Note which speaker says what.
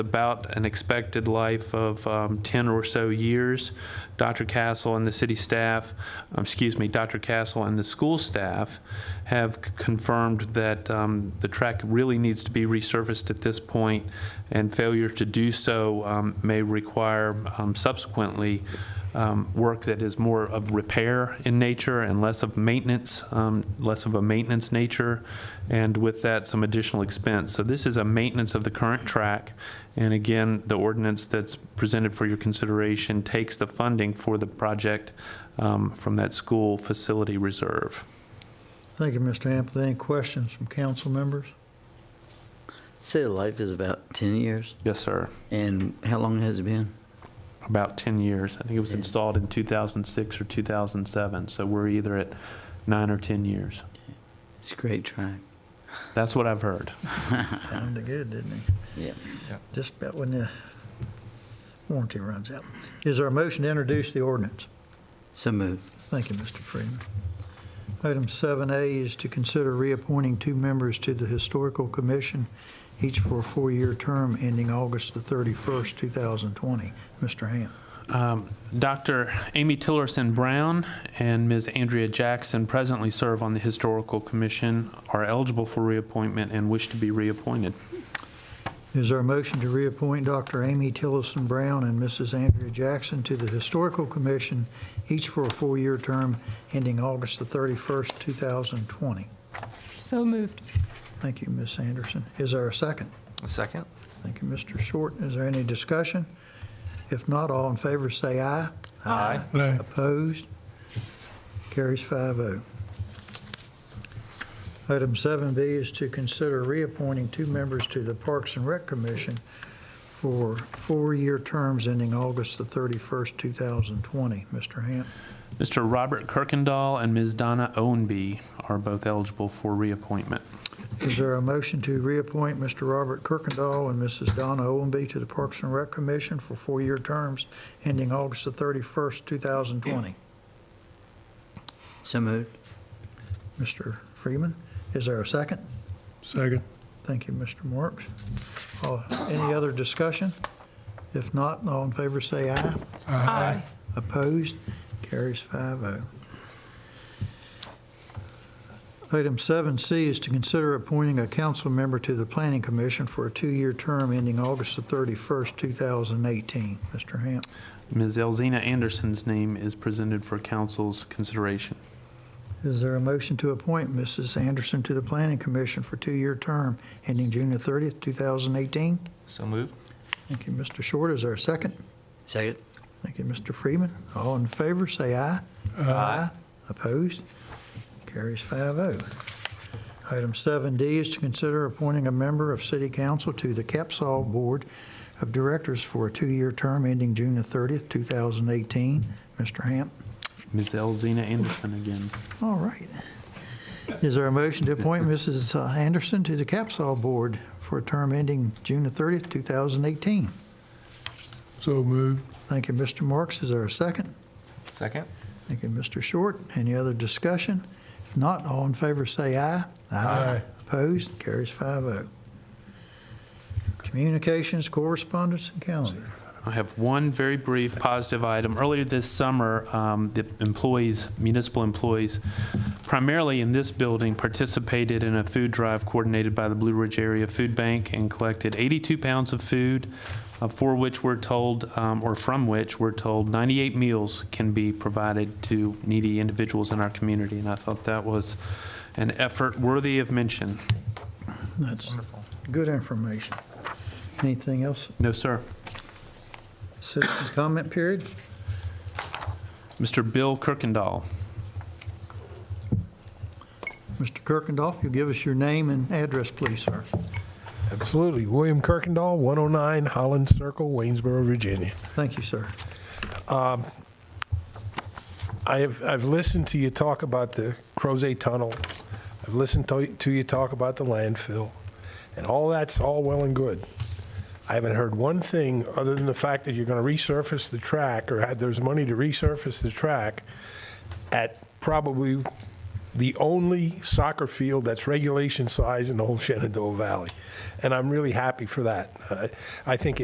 Speaker 1: about an expected life of um, 10 or so years. Dr. Castle and the city staff, um, excuse me, Dr. Castle and the school staff have c- confirmed that um, the track really needs to be resurfaced at this point, and failure to do so um, may require um, subsequently um, work that is more of repair in nature and less of maintenance, um, less of a maintenance nature, and with that, some additional expense. So this is a maintenance of the current track, and again, the ordinance that's presented for your consideration takes the funding for the project um, from that school facility reserve.
Speaker 2: Thank you, Mr. Hampton. Any questions from council members?
Speaker 3: Say the life is about 10 years,
Speaker 1: Yes, sir.
Speaker 3: and how long has it been?
Speaker 1: About 10 years. I think it was
Speaker 3: Yeah.
Speaker 1: installed in 2006 or 2007, so we're either at nine or 10 years.
Speaker 3: It's a great track.
Speaker 1: That's what I've heard.
Speaker 2: Sounded good, didn't it?
Speaker 3: Yeah.
Speaker 2: Just about when the warranty runs out. Is there a motion to introduce the ordinance?
Speaker 3: So moved.
Speaker 2: Thank you, Mr. Freeman. Item 7A is to consider reappointing two members to the Historical Commission, each for a four-year term ending August the 31st, 2020. Mr. Ham.
Speaker 1: Um, Dr. Amy Tillerson Brown and Ms. Andrea Jackson presently serve on the Historical Commission, are eligible for reappointment, and wish to be reappointed.
Speaker 2: Is there a motion to reappoint Dr. Amy Tillison Brown and Mrs. Andrea Jackson to the Historical Commission, each for a four-year term ending August the 31st, 2020?
Speaker 4: So moved.
Speaker 2: Thank you, Ms. Anderson. Is there a second?
Speaker 5: A second?
Speaker 2: Thank you, Mr. Short. Is there any discussion? If not, all in favor say aye.
Speaker 5: Aye.
Speaker 2: Opposed? Carries 5-0. Item 7B is to consider reappointing two members to the Parks and Rec Commission for four-year terms ending August the 31st, 2020. Mr. Hamp,
Speaker 1: Mr. Robert Kirkendall and Ms. Donna Owenby are both eligible for reappointment.
Speaker 2: is there a motion to reappoint Mr. Robert Kirkendall and Mrs. Donna Owenby to the Parks and Rec Commission for four-year terms ending August the 31st, 2020?
Speaker 3: So moved.
Speaker 2: Mr. Freeman, is there a second?
Speaker 6: Second.
Speaker 2: Thank you, Mr. Marks. Uh, Any other discussion? If not, all in favor say aye.
Speaker 4: Aye.
Speaker 2: Opposed? Carries oh. 5-0. Item 7C is to consider appointing a council member to the Planning Commission for a two-year term ending August the 31st, 2018. Mr. Hamp,
Speaker 1: Ms. Elzina Anderson's name is presented for council's consideration.
Speaker 2: is there a motion to appoint Mrs. Anderson to the Planning Commission for two-year term ending June the 30th, 2018?
Speaker 5: So moved?
Speaker 2: Thank you, Mr. Short. Is there a second?
Speaker 3: Second.
Speaker 2: Thank you, Mr. Freeman. All in favor, say aye. Opposed? Carries 5-0. Item 7D is to consider appointing a member of City Council to the Capsol Board of Directors for a two-year term ending June the 30th, 2018. Mr. Hamp?
Speaker 1: Ms. Elzina Anderson again.
Speaker 2: All right. Is there a motion to appoint Mrs. Anderson to the Capsol Board for a term ending June the 30th, 2018?
Speaker 6: So moved.
Speaker 2: Thank you, Mr. Marks. Is there a second?
Speaker 5: Second?
Speaker 2: Thank you, Mr. Short. Any other discussion? If not, all in favor say aye.
Speaker 6: Aye.
Speaker 2: Opposed? Carries 5-0. Communications, correspondence, and calendar.
Speaker 1: I have one very brief positive item. Earlier this summer, um, the employees, municipal employees, primarily in this building, participated in a food drive coordinated by the Blue Ridge Area Food Bank and collected 82 pounds of food, uh, for which we're told, um, or from which we're told, 98 meals can be provided to needy individuals in our community. And I thought that was an effort worthy of mention.
Speaker 2: That's good information. Anything else?
Speaker 1: No, sir.
Speaker 2: Citizens' comment period?
Speaker 1: Mr. Bill Kirkendall.
Speaker 2: Mr. Kirkendall, you'll give us your name and address, please, sir.
Speaker 6: Absolutely. William Kirkendall, 109 Holland Circle, Waynesboro, Virginia.
Speaker 2: Thank you, sir.
Speaker 6: I have, I've listened to you talk about the Crozet Tunnel. I've listened to, to you talk about the landfill. And all that's all well and good. I haven't heard one thing other than the fact that you're going to resurface the track or had, there's money to resurface the track at probably the only soccer field that's regulation size in the whole Shenandoah Valley. And I'm really happy for that. I I think it